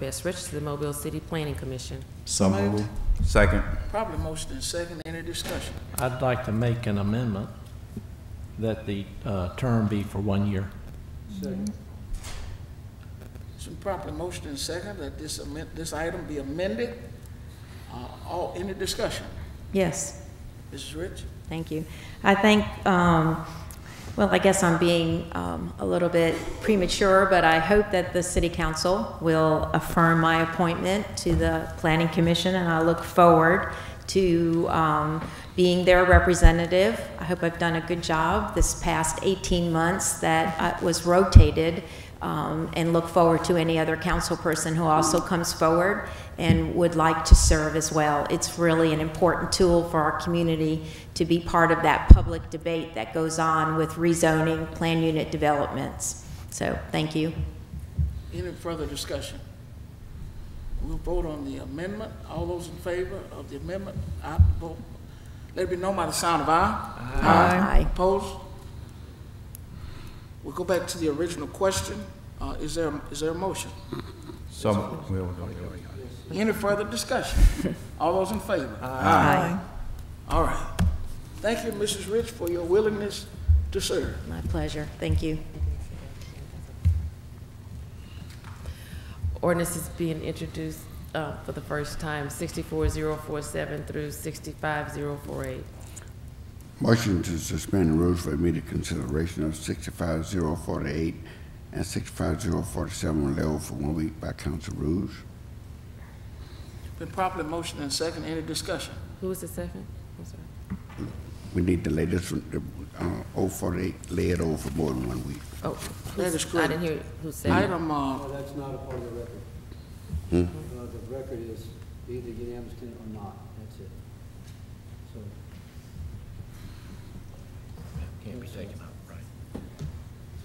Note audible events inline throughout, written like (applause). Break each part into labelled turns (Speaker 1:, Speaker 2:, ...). Speaker 1: Bess Rich to the Mobile City Planning Commission.
Speaker 2: So moved.
Speaker 3: Second.
Speaker 4: Probably motion and second, any discussion?
Speaker 5: I'd like to make an amendment that the uh, term be for one year.
Speaker 4: It's been properly motion and second that this amend, this item be amended. Uh, all, any discussion?
Speaker 6: Yes,
Speaker 4: Mrs. Rich?
Speaker 6: thank you. I think, um, well, I guess I'm being um, a little bit premature, but I hope that the city council will affirm my appointment to the planning commission, and I look forward to um, being their representative. I hope I've done a good job this past 18 months that I was rotated, um, and look forward to any other council person who also comes forward and would like to serve as well. It's really an important tool for our community to be part of that public debate that goes on with rezoning, plan unit developments. So, thank you.
Speaker 4: Any further discussion? We'll vote on the amendment. All those in favor of the amendment, I vote. Let it be known by the sound of aye.
Speaker 6: Aye. Aye.
Speaker 4: Opposed? We'll go back to the original question. Uh, is there, is there a motion?
Speaker 3: So, we don't do it.
Speaker 4: Any further discussion?
Speaker 6: (laughs)
Speaker 4: All those in favor?
Speaker 6: Aye.
Speaker 4: All right. Thank you, Mrs. Rich, for your willingness to serve.
Speaker 6: My pleasure. Thank you.
Speaker 1: Ordinance is being introduced uh, for the first time, 64047 through 65048.
Speaker 7: Motion to suspend the rules for immediate consideration of 65048 and 65047 on level for one week by council rules.
Speaker 4: Been properly motioned and second, any discussion?
Speaker 1: Who was the second? I'm sorry.
Speaker 7: We need the latest, uh, 048 laid over for more than one week.
Speaker 1: Oh,
Speaker 4: That is
Speaker 1: who's- I
Speaker 4: correct.
Speaker 1: didn't hear who said it.
Speaker 4: Item, uh,
Speaker 8: No, Oh, that's not a part of the record. Uh, The record is either unanimous consent or not, that's it. So,
Speaker 5: Can't be taken up, right?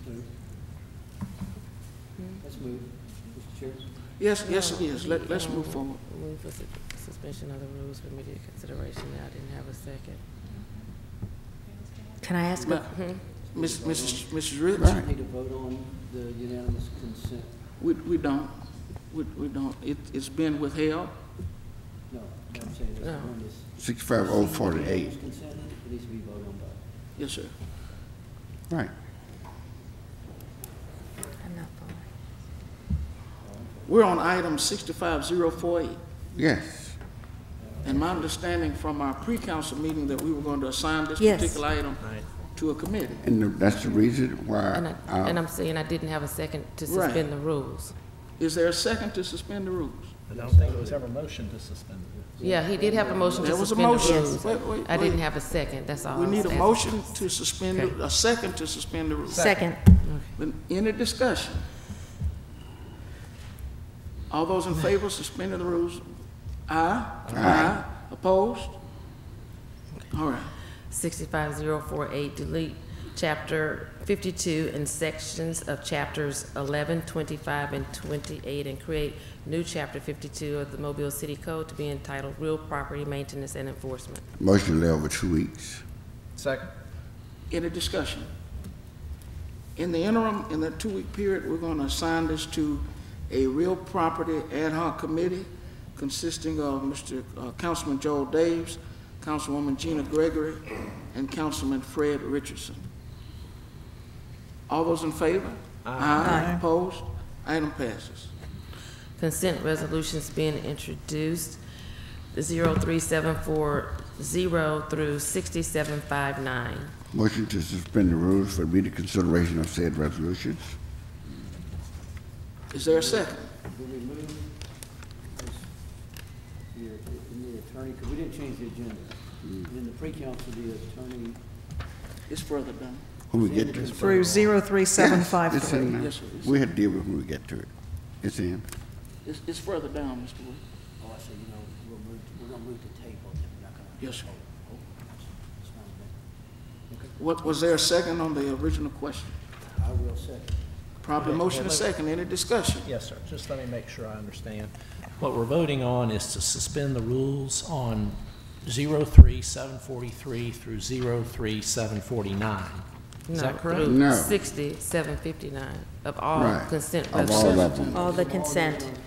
Speaker 8: move. Let's move, Mr. Chair.
Speaker 4: yes, yes, it is. Let, let's move forward.
Speaker 1: Move for su- suspension of the rules for immediate consideration. I didn't have a second.
Speaker 6: Can I ask? a-
Speaker 4: Ma-
Speaker 6: Mm-hmm.
Speaker 4: Miss- Mrs. Mrs. Rich,
Speaker 7: Right.
Speaker 8: Need to vote on the unanimous consent.
Speaker 4: we, we don't, we, we don't, it, it's been withheld.
Speaker 8: No, what I'm saying is
Speaker 1: No.
Speaker 8: on this
Speaker 7: 65048,
Speaker 8: unanimous consent, it needs to be voted on by.
Speaker 4: Yes, sir.
Speaker 7: right.
Speaker 6: I'm not following.
Speaker 4: We're on item sixty-five zero four eight.
Speaker 7: Yes,
Speaker 4: And my understanding from our pre-council meeting that we were going to assign this
Speaker 6: Yes.
Speaker 4: particular item to a committee.
Speaker 7: and the- that's the reason
Speaker 1: And
Speaker 7: why,
Speaker 1: I- And
Speaker 7: uh,
Speaker 1: I'm saying I didn't have a second to
Speaker 4: Right.
Speaker 1: suspend the rules.
Speaker 4: Is there a second to suspend the rules?
Speaker 5: I don't think it was ever motioned to suspend the rules.
Speaker 1: Yeah, he did have a motion to
Speaker 4: There was a
Speaker 1: suspend the
Speaker 4: motion.
Speaker 1: rules.
Speaker 4: Wait, wait,
Speaker 1: I didn't
Speaker 4: wait.
Speaker 1: have a second, that's all.
Speaker 4: We
Speaker 1: I was
Speaker 4: need a
Speaker 1: asking.
Speaker 4: motion to suspend,
Speaker 1: Okay.
Speaker 4: a second to suspend the rules.
Speaker 6: Second.
Speaker 4: Then Any discussion? All those in favor of suspending the rules? Aye? Aye. Opposed? All right.
Speaker 1: 65048, delete Chapter 52 and sections of Chapters 11, 25, and 28, and create new Chapter 52 of the Mobile City Code to be entitled Real Property Maintenance and Enforcement.
Speaker 7: motion to lay over two weeks.
Speaker 5: Second.
Speaker 4: Any discussion? In the interim, in that two-week period, we're going to assign this to a real property ad hoc committee consisting of Mr. uh, Councilman Joel Daves, Councilwoman Gina Gregory, and Councilman Fred Richardson. All those in favor? Aye. Opposed? Item passes.
Speaker 1: Consent resolutions being introduced, 03740 through 6759.
Speaker 7: Motion to suspend the rules for immediate consideration of said resolutions.
Speaker 4: Is there a second?
Speaker 8: Will we move this, your, the attorney, because we didn't change the agenda.
Speaker 4: Mm.
Speaker 8: In the pre-council, the attorney
Speaker 4: It's further down.
Speaker 7: When we get to it.
Speaker 9: through
Speaker 7: It's in
Speaker 9: 03753.
Speaker 7: now.
Speaker 4: Yes, sir.
Speaker 7: We had to deal with it when we get to it. It's in.
Speaker 4: It's, it's further down, Mr. Wood.
Speaker 8: Oh, I see, you know, we'll move, to- we're gonna move to table, then we're not gonna.
Speaker 4: Yes, sir.
Speaker 8: Oh, it's not a
Speaker 4: What, was there a second on the original question?
Speaker 8: bad- I will second.
Speaker 4: Probably motion and second. Any discussion?
Speaker 5: Yes, sir. Just let me make sure I understand. What we're voting on is to suspend the rules on 03743 through 03749. Is that correct?
Speaker 7: No.
Speaker 1: 6759 of all
Speaker 7: Right.
Speaker 1: consent
Speaker 7: Of all
Speaker 1: resolutions.
Speaker 7: of them.
Speaker 6: All the consent.